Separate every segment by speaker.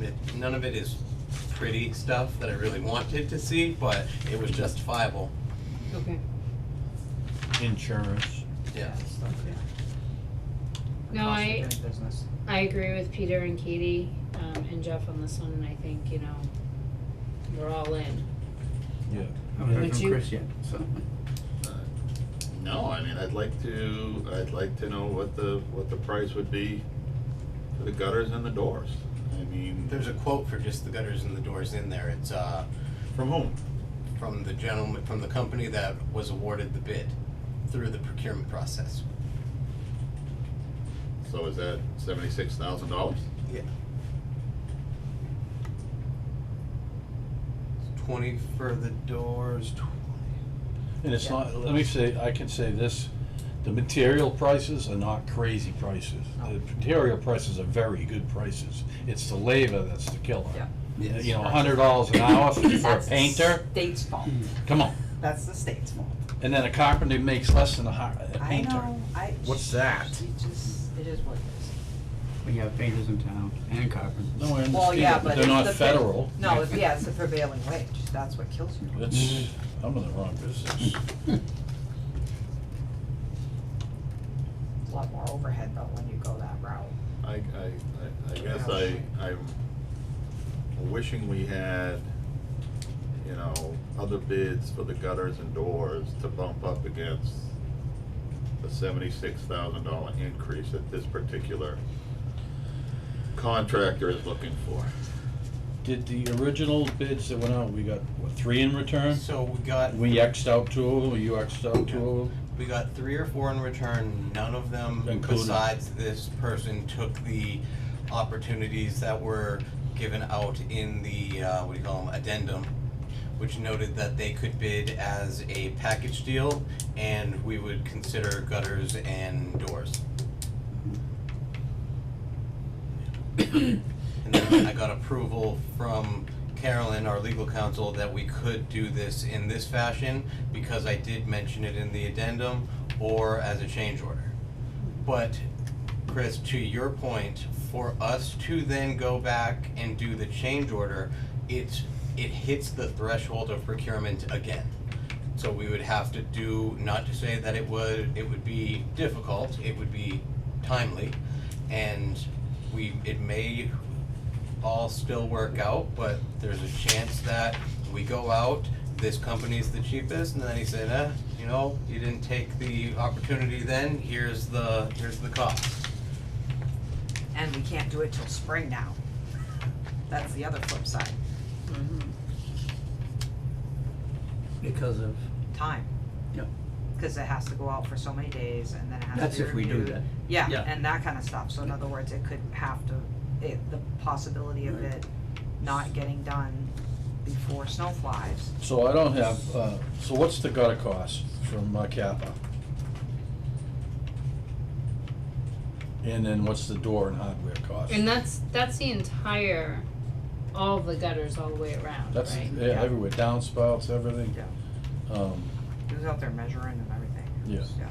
Speaker 1: it- none of it is pretty stuff that I really wanted to see, but it was justifiable,
Speaker 2: Okay.
Speaker 3: insurance.
Speaker 1: yeah.
Speaker 4: stuff, yeah.
Speaker 2: No,
Speaker 4: Cost of
Speaker 2: I-
Speaker 4: doing business.
Speaker 2: I agree with Peter and Katie, um, and Jeff on this one, and I think, you know, we're all in.
Speaker 3: Yeah.
Speaker 4: I haven't heard
Speaker 2: Would
Speaker 4: from
Speaker 2: you-
Speaker 4: Chris yet, so.
Speaker 5: No, I mean, I'd like to, I'd like to know what the, what the price would be for the gutters and the doors. I mean,
Speaker 1: There's a quote for just the gutters and the doors in there, it's, uh,
Speaker 5: from whom?
Speaker 1: from the gentleman, from the company that was awarded the bid through the procurement process.
Speaker 5: So is that seventy-six thousand dollars?
Speaker 1: Yeah. Twenty for the doors, twenty.
Speaker 3: And it's not, let me say, I can say this, the material prices are not crazy prices.
Speaker 4: No.
Speaker 3: The material prices are very good prices. It's the labor that's the killer.
Speaker 4: Yeah.
Speaker 3: Uh, You know, a hundred dollars an hour for for a
Speaker 4: That's the
Speaker 3: painter,
Speaker 4: State's fault,
Speaker 3: come on.
Speaker 4: that's the state's fault.
Speaker 3: And then a carpenter makes less than a har- a
Speaker 4: I
Speaker 3: painter.
Speaker 4: know, I.
Speaker 3: What's that?
Speaker 4: It just, it is what it is.
Speaker 6: We have painters in town and carpenters.
Speaker 3: No, I
Speaker 4: Well,
Speaker 3: understand,
Speaker 4: yeah, but
Speaker 3: but
Speaker 4: it's
Speaker 3: they're
Speaker 4: the.
Speaker 3: not
Speaker 4: pre-
Speaker 3: federal.
Speaker 4: No, it's- yeah, it's the prevailing wage, that's what kills you.
Speaker 3: That's, I'm in the wrong business.
Speaker 4: It's a lot more overhead though when you go that route.
Speaker 5: I, I, I, I guess I, I'm wishing we had, you know, other bids for the gutters and doors to bump up against the seventy-six thousand dollar increase that this particular contractor is looking for.
Speaker 3: Did the original bids that went out, we got, what, three in return?
Speaker 1: So we got,
Speaker 3: We Xed out two of them, you Xed out two of them?
Speaker 1: we got three or four in return, none of them
Speaker 3: Included.
Speaker 1: besides this person took the opportunities that were given out in the, uh, what do you call them, addendum, which noted that they could bid as a package deal and we would consider gutters and doors. And then I got approval from Carolyn, our legal counsel, that we could do this in this fashion because I did mention it in the addendum or as a change order. But Chris, to your point, for us to then go back and do the change order, it's, it hits the threshold of procurement again. So we would have to do, not to say that it would, it would be difficult, it would be timely. And we, it may all still work out, but there's a chance that we go out, this company's the cheapest, and then he said, eh, you know, you didn't take the opportunity then, here's the, here's the cost.
Speaker 4: And we can't do it till spring now. That's the other flip side,
Speaker 6: Because of,
Speaker 4: time.
Speaker 6: Yep.
Speaker 4: Cause it has to go out for so many days and then it has
Speaker 6: that's
Speaker 4: to be
Speaker 6: if we do
Speaker 4: reviewed.
Speaker 6: that.
Speaker 4: Yeah,
Speaker 6: Yeah.
Speaker 4: and that kinda stuff, so in other words, it could have to, it, the possibility of
Speaker 6: Right.
Speaker 4: it not getting done before snow flies.
Speaker 3: So I don't have, uh, so what's the gutter cost from uh, Kappa? And then what's the door and hardware cost?
Speaker 2: And that's, that's the entire, all the gutters all the way around, right?
Speaker 3: That's yeah,
Speaker 4: yeah.
Speaker 3: everywhere, downspouts, everything.
Speaker 4: Yeah.
Speaker 3: Um,
Speaker 4: He was out there measuring and everything.
Speaker 3: Yeah.
Speaker 4: Yeah.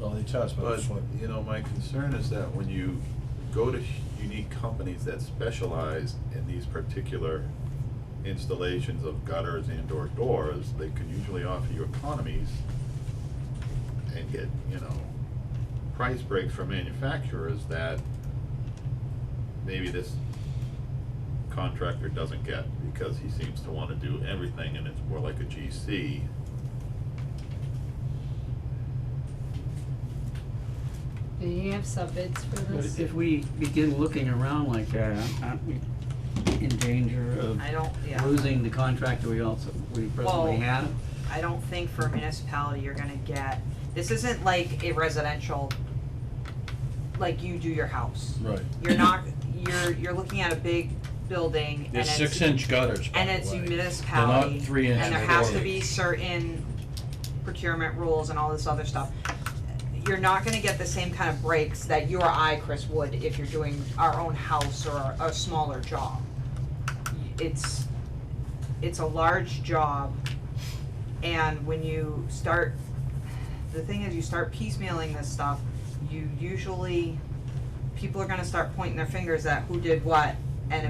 Speaker 3: well, they charge about
Speaker 5: But,
Speaker 3: this one.
Speaker 5: you know, my concern is that when you go to sh- unique companies that specialize in these particular installations of gutters and or doors, they can usually offer you economies and get, you know, price breaks from manufacturers that maybe this contractor doesn't get because he seems to wanna do everything and it's more like a GC.
Speaker 2: Do you have sub-bids for
Speaker 6: But
Speaker 2: this?
Speaker 6: if we begin looking around like that, aren't we in danger of
Speaker 4: I don't, yeah.
Speaker 6: losing the contractor we also, we
Speaker 4: Well-
Speaker 6: presently have?
Speaker 4: I don't think for a municipality you're gonna get, this isn't like a residential, like you do your house.
Speaker 3: Right.
Speaker 4: You're not, you're, you're looking at a big building and
Speaker 3: There's
Speaker 4: it's.
Speaker 3: six inch gutters, by
Speaker 4: And
Speaker 3: the
Speaker 4: it's a
Speaker 3: way.
Speaker 4: municipality.
Speaker 3: They're not three inch.
Speaker 4: And there has to
Speaker 3: doors.
Speaker 4: be certain procurement rules and all this other stuff. You're not gonna get the same kind of breaks that you or I, Chris, would if you're doing our own house or a smaller job. It's, it's a large job, and when you start, the thing is, you start piecemealing this stuff, you usually, people are gonna start pointing their fingers at who did what,